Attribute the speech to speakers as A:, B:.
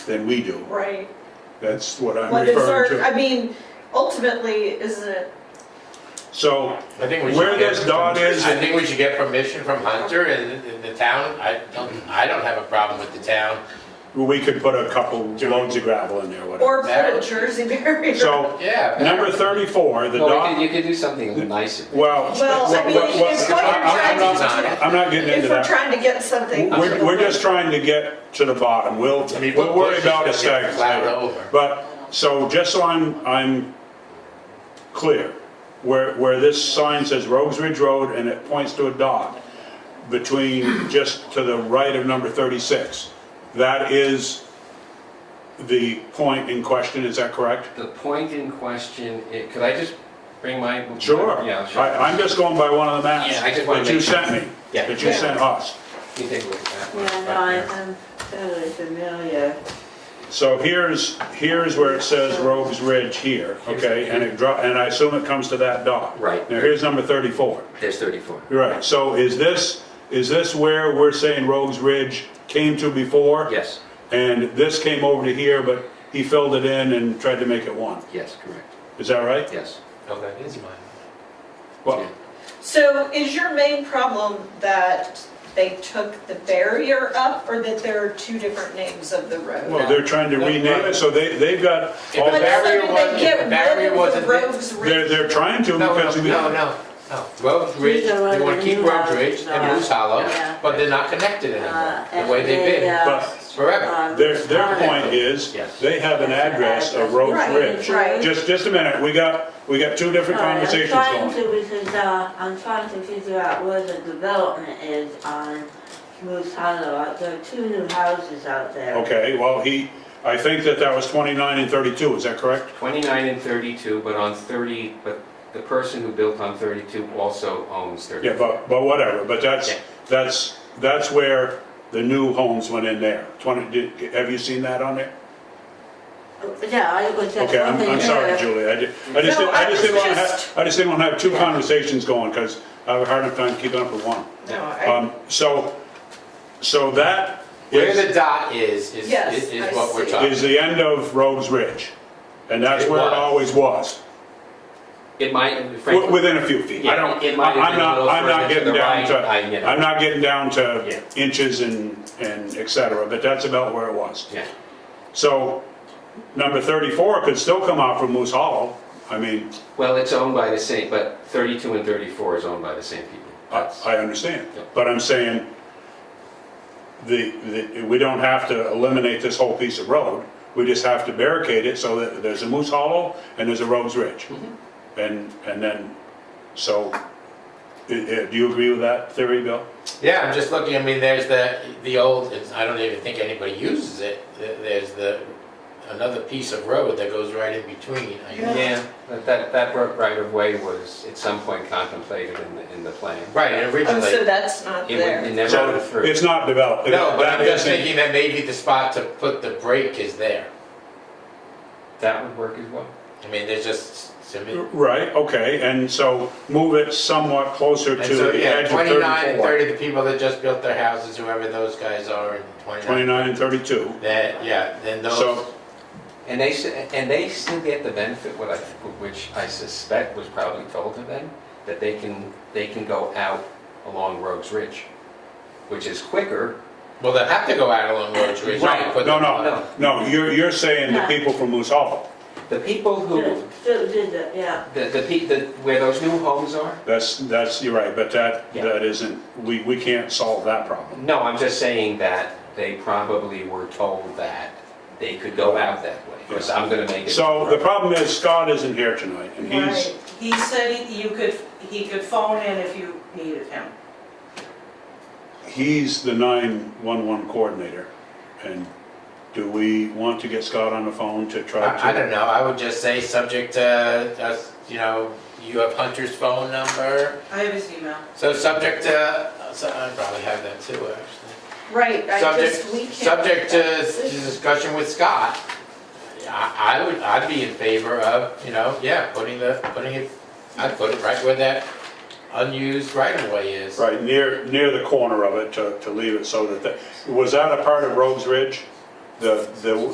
A: than we do.
B: Right.
A: That's what I'm
B: What is our,
A: referring to.
B: I mean, ultimately, isn't it,
A: So
C: I think we should.
A: Where
C: get
A: this dot
C: permission-
A: is-
C: I think we should get permission from Hunter and the- the town. I don't, I don't have a problem with the town.
A: we could put a couple loads of gravel in there, whatever.
B: or put a Jersey barrier?
A: So
C: Yeah.
A: number 34, the
D: Well, we could,
A: dot,
D: you could do something nicer.
A: well,
B: Well, I mean,
A: well, well,
B: if we're
A: I'm
B: trying
A: not-
B: to,
A: I'm not getting into
B: if we're
A: that.
B: trying to get something.
A: We're, we're just trying to get to the bottom. We'll,
C: I mean,
A: we'll worry
C: Bush is
A: about
C: gonna
A: the stag.
C: get plowed over.
A: But, so just so I'm, I'm clear, where, where this sign says Rogues Ridge Road and it points to a dot between, just to the right of number 36, that is the point in question, is that correct?
D: The point in question, i- could I just bring my?
A: Sure.
D: Yeah, sure.
A: I, I'm just going by one of the maps
D: Yeah, I just wanna
A: that you
D: make-
A: sent me,
D: Yeah.
A: that you sent us.
D: You take a look at that one.
E: Yeah, no, I- I'm totally familiar.
A: So here's, here's where it says Rogues Ridge here, okay? And it dro, and I assume it comes to that dot.
D: Right.
A: Now, here's number 34.
D: There's 34.
A: Right, so is this, is this where we're saying Rogues Ridge came to before?
D: Yes,
A: And this came over to here, but he filled it in and tried to make it one.
D: yes, correct,
A: Is that right?
D: yes.
C: Oh, that is mine.
A: Well,
B: So is your main problem that they took the barrier up or that there are two different names of the
A: well,
B: road?
A: they're trying to rename it, so they, they've got, all
C: the
B: But
A: they're,
C: barrier
B: doesn't mean
C: wasn't-
B: they
C: the
B: get
C: barrier
B: rid of
C: wasn't
B: the
C: there.
B: roads ridge?
A: they're trying to
C: No,
A: because
C: no,
A: we.
C: no, no, no. Road Ridge,
E: These are
C: they wanna
E: the
C: keep
E: new
C: Road
E: ones,
C: Ridge and
E: uh,
C: Moose Hollow,
E: yeah.
C: but they're not connected anymore,
E: Uh,
C: the way they've
E: and they,
C: been
E: uh,
A: But
C: forever.
E: um,
A: their, their point is,
C: Yes.
A: they have an address of Rogues
B: Right,
A: Ridge.
B: right.
A: Just, just a minute, we got, we got two different
E: Sorry,
A: conversations
E: I'm
A: going.
E: trying to, because, uh, I'm trying to figure out where the development is on Moose Hollow. Uh, There are two new houses out there.
A: Okay, well, he, I think that that was 29 and 32, is that correct?
D: 29 and 32, but on 30, but the person who built on 32 also owns 30.
A: Yeah, but, but whatever, but that's,
D: Yeah.
A: that's, that's where the new homes went in there. 20, did- have you seen that on there?
E: Yeah, I was just
A: Okay, I'm,
E: wondering.
A: I'm sorry,
E: where-
A: Julie, I did, I just,
B: No,
A: didn't- I
B: I
A: just didn't
B: was
A: wanna have,
B: just-
A: I just didn't wanna have two conversations going, because I have a hard enough time keeping up with one.
B: No, I-
A: Um, so, so that
C: Where
A: is,
C: the dot is, is,
B: Yes,
C: is
B: I
C: is what we're
B: see.
C: talking.
A: is the end of Rhodes Ridge, and that's
C: It
A: where it
C: was.
A: always was.
D: It might,
A: W-
D: frankly,
A: Within a few feet. I
D: Yeah,
A: don't,
D: it might have
A: I'm
D: been a
A: not,
D: little
A: I'm not
D: further to
A: getting
D: the
A: down
D: right,
A: to,
D: I- you know.
A: I'm not getting down
D: Yeah.
A: to inches and, and et cetera, but that's about where it was.
D: yeah.
A: So number 34 could still come out from Moose Hollow. I mean,
D: Well, it's owned by the same, but 32 and 34 is owned by the same people.
A: I
D: That's-
A: I understand,
D: Yeah.
A: but I'm saying the, the- we don't have to eliminate this whole piece of road. We just have to barricade it so that there's a Moose Hollow and there's a Rhodes Ridge.
C: Mm-hmm.
A: And, and then, so, i- i- do you agree with that theory, Bill?
C: Yeah, I'm just looking, I mean, there's the, the old, it's- I don't even think anybody uses it, There- there's the, another piece of road that goes right in between. I guess.
D: Yeah, but that, that work right of way was at some point contemplated in the, in the plan.
C: Right, and
B: Oh, so
C: originally,
B: that's not
D: It would- it
B: there.
D: never
A: So
D: went through.
A: It's not developed.
C: no, but I'm
A: That
C: just
A: isn't-
C: thinking that maybe the spot to put the brake is there.
D: That would work as well.
C: I mean, there's just, I mean,
A: Right, okay, and so move it somewhat closer
C: and
A: to
C: so,
A: the edge
C: yeah,
A: of
C: 29 and
A: 34.
C: 30, the people that just built their houses, whoever those guys are, and 29,
A: 29 and 32.
C: that, yeah, then those,
A: So,
D: And they, s- and they still get the benefit, what I, which I suspect was probably told to them, that they can, they can go out along Rogues Ridge, which is quicker.
C: well, they'll have to go out along Roach Ridge.
D: Right,
C: put
A: no,
C: them on.
A: no, no, you're, you're saying the
E: No.
A: people from Moose Hollow.
D: The people who,
E: Ju- ju- did it, yeah.
D: the, the, pe- the where those new homes are?
A: That's, that's, you're right, but that,
D: Yeah.
A: that isn't, we, we can't solve that problem.
D: No, I'm just saying that they probably were told that they could go out that way, because I'm gonna make it.
A: So the problem is Scott isn't here tonight, and he's,
F: Right, he said he- you could, he could phone in if you needed him.
A: he's the 911 coordinator. And do we want to get Scott on the phone to try to?
C: I I don't know, I would just say, subject to us, you know, you have Hunter's phone number,
F: I have his email.
C: so subject to, so I probably have that too, actually.
B: Right, I just, we can't.
C: Subject, subject to s- discussion with Scott, I, I would, I'd be in favor of, you know, yeah, putting the, putting it, I'd put it right where that unused right of way is.
A: Right, near, near the corner of it, to, to leave it so that, the- was that a part of Rogues Ridge? The, the